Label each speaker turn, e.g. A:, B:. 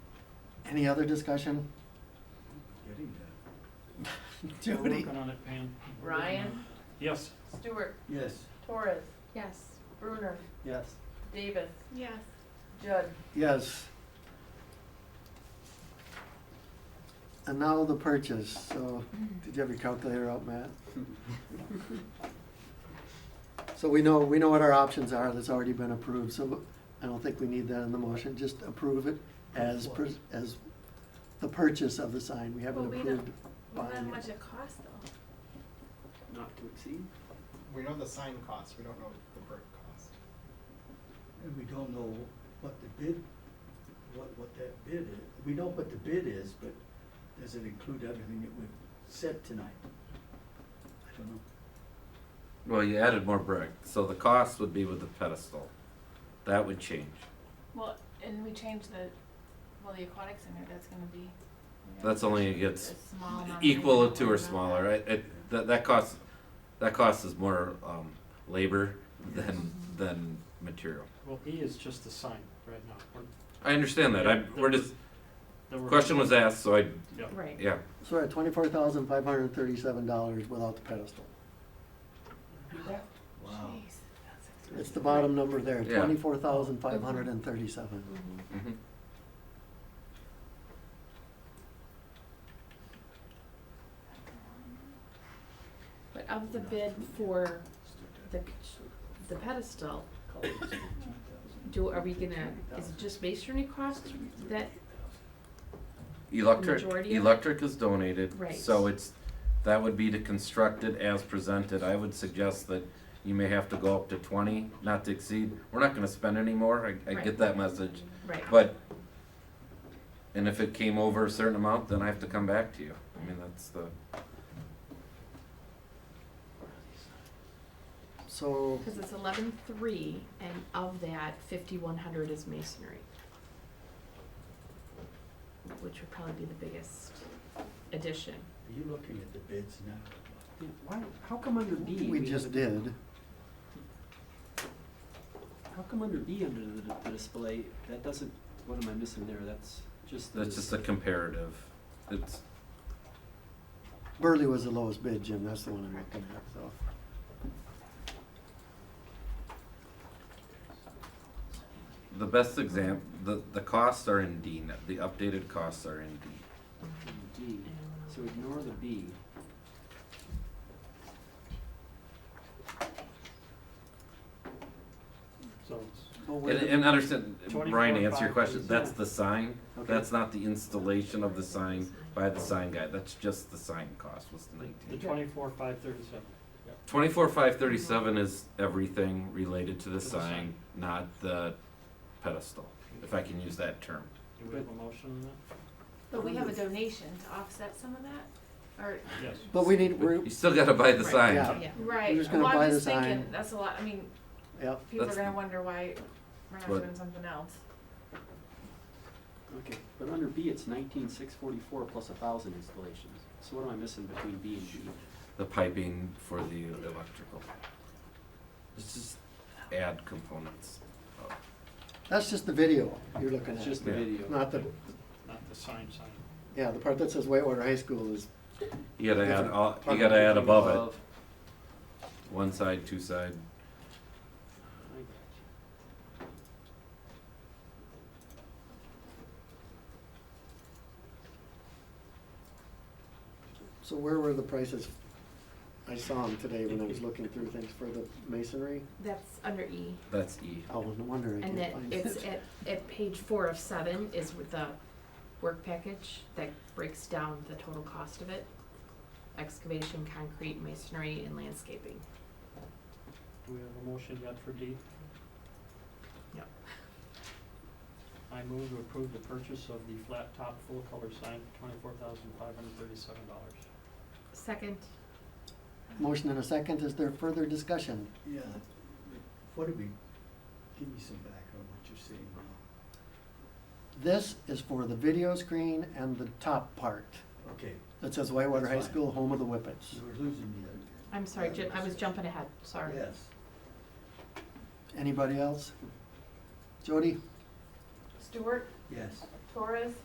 A: Any other discussion?
B: Getting that.
C: We're
A: Jody?
C: working on it, Pam. We're working
D: Ryan?
C: on it. Yes.
D: Stewart,
B: Yes.
D: Torres,
E: Yes.
D: Bruner,
A: Yes.
D: Davis,
E: Yes.
D: Judd.
A: Yes. And now the purchase, so, did you have your calculator out, Matt? So we know, we know what our options are, that's already been approved, so I don't think we need that in the motion, just approve it as, pres- as the purchase of the sign, we haven't
E: Well, we
A: approved
E: Well, how
A: buying
E: much
A: it.
E: it costs though?
C: Not to exceed.
F: We know the sign cost, we don't know the brick cost.
B: And we don't know what the bid, what, what that bid is. We know what the bid is, but does it include everything that we've said tonight? I don't know.
G: Well, you added more brick, so the cost would be with the pedestal. That would change.
H: Well, and we changed the, well, the aquatic center, that's gonna be. you know,
G: That's only it gets
H: a small amount of
G: equal
H: money.
G: to or smaller. It, it, that, that costs, that cost is more, um, labor than, than material.
C: Well, E is just the sign right now. We're-
G: I understand that. I, we're just,
C: that we're-
G: question was asked, so I,
C: Yeah.
D: Right.
G: yeah.
A: So we're at twenty-four thousand five hundred and thirty-seven dollars without the pedestal.
B: Wow.
H: Jeez, that's expensive.
A: It's the bottom number there,
G: Yeah.
A: twenty-four thousand five hundred and thirty-seven.
G: Mhm.
E: But of the bid for the, the pedestal, do, are we gonna, is it just masonry cost that,
G: Electric,
E: Majority of it?
G: electric is donated,
E: Right.
G: so it's, that would be to construct it as presented. I would suggest that you may have to go up to twenty, not to exceed. We're not gonna spend any more, I, I
E: Right.
G: get that message,
E: right?
G: but, and if it came over a certain amount, then I have to come back to you. I mean, that's the,
A: So,
E: Cause it's eleven-three and of that, fifty-one hundred is masonry. Which would probably be the biggest addition.
B: Are you looking at the bids now?
C: Yeah, Why, how come under B?
A: we
C: have
A: just
C: a-
A: did,
C: How come under B, under the, the display, that doesn't, what am I missing there? That's just the.
G: that's just a comparative. It's,
A: Burley was the lowest bid, Jim, that's the one I'm looking at, so.
G: the best example, the, the costs are in D, now. the updated costs are in D.
C: D, so ignore the B. So.
A: Well, where
G: And,
A: did-
G: and understand,
C: 24
G: Brian, to answer your
C: five
G: question,
C: thirty
G: that's
C: seven.
G: the sign,
C: Okay.
G: that's not the installation of the sign by the sign guy, that's just the sign cost, was the
C: The
G: nineteen.
C: twenty-four, five thirty-seven.
G: Twenty-four, five thirty-seven is everything related to the
C: To the sign.
G: sign, not the pedestal, if I can use that term.
C: Do we have a motion on
H: But we have a donation to offset some of that, or,
C: that? Yes.
A: But we need, we're,
G: You still gotta buy the
H: Right,
G: sign,
A: yeah,
E: Yeah.
H: right,
A: just gonna
H: well,
A: buy
H: I'm
A: the
H: just thinking,
A: sign.
H: that's a lot, I mean,
A: yep.
H: people are
G: That's-
H: gonna wonder why we're not
G: What?
H: doing something else.
C: Okay, but under B, it's nineteen six forty-four plus a thousand installations. So what am I missing between B and D?
G: the piping for the electrical. Let's just add components.
A: That's just the video you're looking
C: It's
A: at,
C: just the
G: Yeah.
C: video.
A: not the,
C: Not the sign sign.
A: yeah, the part that says Whitewater High School is,
G: You gotta add,
A: Different
G: all- you
A: part
G: gotta add above
C: Above.
G: it, one side, two side,
C: I got you.
A: so where were the prices? I saw them today when I was looking through things for the masonry.
E: That's under E.
G: that's E.
A: Oh, no wonder I
E: And that
A: can't find
E: it's
A: it.
E: at, at page four of seven is with the work package that breaks down the total cost of it. Excavation, concrete, masonry, and landscaping.
C: Do we have a motion yet for D?
E: Yep.
C: I move to approve the purchase of the flat top full color sign for twenty-four thousand five hundred thirty-seven dollars.
E: Second,
A: Motion and a second, is there further discussion?
B: Yeah, what do we, give me some background on what you're saying now.
A: This is for the video screen and the top part
B: Okay,
A: that says Whitewater High
B: That's fine.
A: School, home of the Whippets.
B: you were losing me there.
E: I'm sorry, Jim, I was jumping ahead, sorry.
B: Yes.
A: Anybody else? Jody?
D: Stewart,
B: Yes.
D: Torres,